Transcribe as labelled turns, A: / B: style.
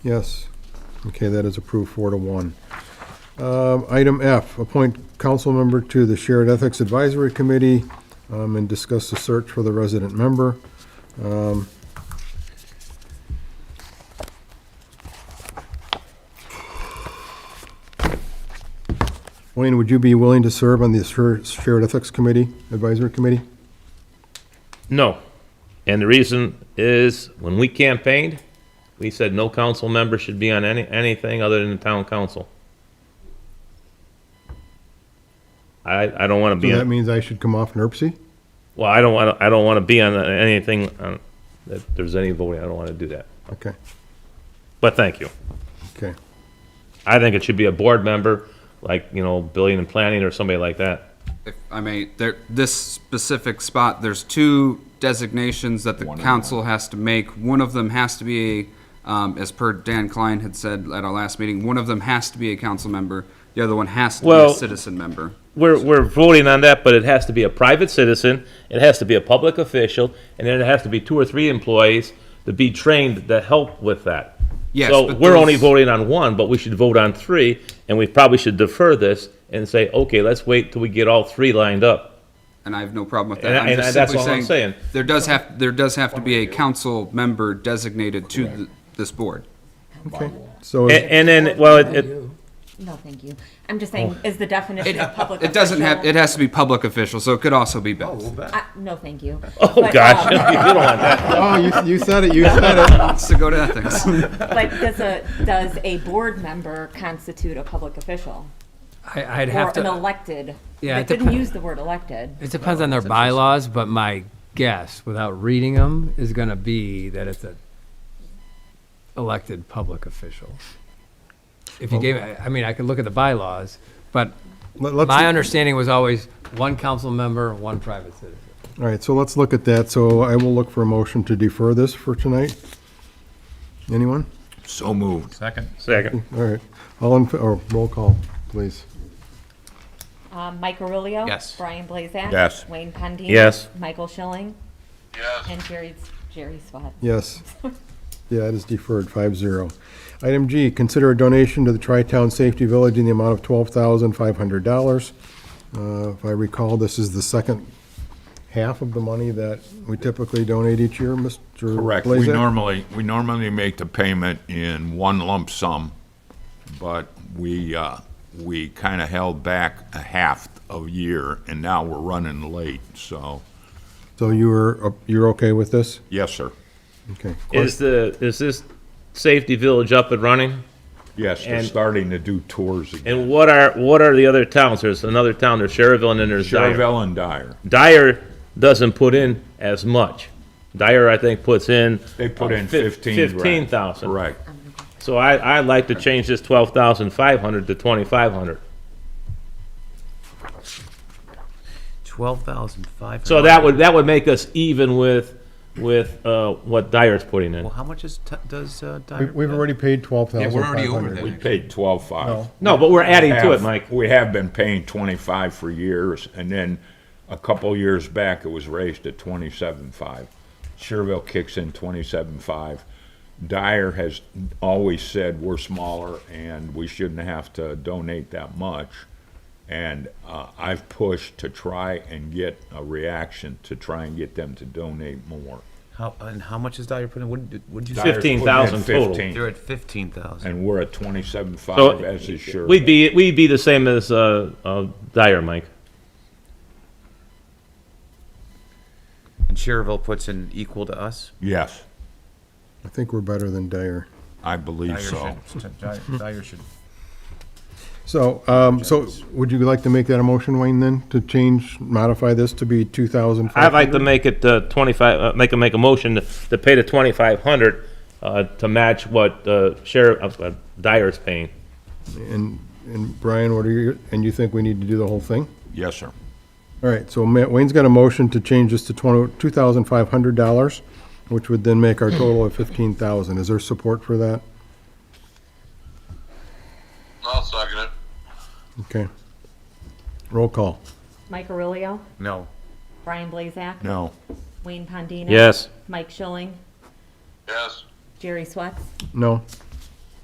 A: Yes. Okay, that is approved four to one. Um, Item F, appoint council member to the Shared Ethics Advisory Committee um, and discuss the search for the resident member. Um, Wayne, would you be willing to serve on the Sher- Shared Ethics Committee, Advisory Committee?
B: No. And the reason is, when we campaigned, we said no council member should be on any, anything other than the town council. I, I don't want
A: So
B: to be,
A: that
B: on-
A: means I should come off NERC?
B: well, I don't want, I don't want to be on anything, uh, that there's any voting, I don't want to do that.
A: Okay,
B: But thank you.
A: okay.
B: I think it should be a board member, like, you know, building and planning or somebody like that.
C: If I may, there, this specific spot, there's two designations that the council has to make. One of them has to be, um, as per Dan Klein had said at our last meeting, one of them has to be a council member. The other one has to be a
B: Well-
C: citizen member.
B: We're, we're voting on that, but it has to be a private citizen, it has to be a public official, and then it has to be two or three employees to be trained to help with that.
C: Yes,
B: So
C: but
B: we're only
C: those-
B: voting on one, but we should vote on three, and we probably should defer this and say, okay, let's wait till we get all three lined up.
C: And I have no problem with
B: And I-
C: that. I'm
B: and I-
C: just
B: that's
C: simply
B: all I'm saying.
C: There does have, there does have to be a council member designated to th- this board.
A: So,
B: A- And, then, well, it, it,
D: No, thank you. I'm just saying,
B: Oh.
D: is the definition of public
C: It doesn't have, it
D: official-
C: has to be public official, so it could also be Beth.
D: I- No, thank you.
B: oh
D: But,
B: gosh, you
D: um,
B: don't want that.
A: oh, you- you said it, you said it.
C: Wants to go to ethics.
D: But does a, does a board member constitute a public official?
E: I, I'd
D: Or
E: have
D: an
E: to,
D: elected?
E: Yeah,
D: I
E: it
D: didn't
E: depen-
D: use the word elected.
E: it depends on their bylaws, but my guess, without reading them, is gonna be that it's a elected public official. If you gave, I I mean, I could look at the bylaws, but
A: Let- let's-
E: my understanding was always one council member, one private citizen.
A: All right, so let's look at that. So I will look for a motion to defer this for tonight. Anyone?
F: So moved.
B: Second,
A: All right. All in, fa- or roll call, please.
D: Um, Mike Aurelio.
C: Yes.
D: Brian Blazak.
F: Yes.
D: Wayne Pendine.
B: Yes.
D: Michael Schilling. Yes. And Jerry, Jerry Swat.
A: Yes. Yeah, it is deferred, five zero. Item G, consider a donation to the Tri-Town Safety Village in the amount of twelve thousand five hundred dollars. Uh, If I recall, this is the second half of the money that we typically donate each year, Mr.
F: Correct. We
A: Blazek?
F: normally, we normally make the payment in one lump sum, but we, uh, we kind of held back a half of year, and now we're running late, so,
A: So you're, you're okay with this?
F: yes, sir.
A: Okay.
B: is the, is this safety village up and running?
F: Yes, they're
B: And-
F: starting to do tours again.
B: And what are, what are the other towns? There's another town, there's Sherrville, and then there's Dyer.
F: Chervell and Dyer,
B: Dyer doesn't put in as much. Dyer, I think, puts in.
F: they put
B: uh,
F: in
B: fif-
F: fifteen grand.
B: 15,000.
F: Correct.
B: So I, I like to change this twelve thousand five hundred to twenty-five hundred.
G: Twelve thousand five.
B: So that would, that would make us even with, with, uh, what Dyer's putting in.
G: Well, how much is t- does uh,
A: We-
G: Dyer?
A: We've already paid twelve thousand five hundred.
C: already over that.
F: We paid twelve-five.
B: No, but we're adding to it,
F: have-
B: Mike.
F: We have been paying twenty-five for years, and then a couple years back, it was raised to twenty-seven-five. Sherville kicks in twenty-seven-five. Dyer has always said we're smaller and we shouldn't have to donate that much. And, uh, I've pushed to try and get a reaction, to try and get them to donate more.
G: How and how much is Dyer putting? What did, what did you
F: Dyer's
G: say?
B: 15,000
F: putting in
B: total.
F: 15,
G: They're at fifteen thousand.
F: And we're at
B: So
F: twenty-seven-five as is Sherville.
B: We'd be, we'd be the same as, uh, uh, Dyer, Mike.
G: And Sherrville puts in equal to us.
F: Yes,
A: I think we're better than Dyer.
F: I believe so.
G: should. Dyer should.
A: So, um, so would you like to make that a motion, Wayne, then, to change, modify this to be two thousand five
B: I'd
A: hundred?
B: like to make it, uh, twenty-five, uh, make a, make a motion to, to pay the twenty-five hundred, uh, to match what, uh, Sheriff, uh, Dyer's paying.
A: And, and Brian, what are you, and you think we need to do the whole thing?
F: Yes, sir.
A: All right, so Ma- Wayne's got a motion to change this to twenty, two thousand five hundred dollars, which would then make our total of fifteen thousand. Is there support for that?
H: I'll second it.
A: Okay. Roll call.
D: Mike Aurelio.
G: No.
D: Brian Blazak.
F: No.
D: Wayne Pendine.
B: Yes.
D: Mike Schilling.
H: Yes.
D: Jerry Swat.
A: No?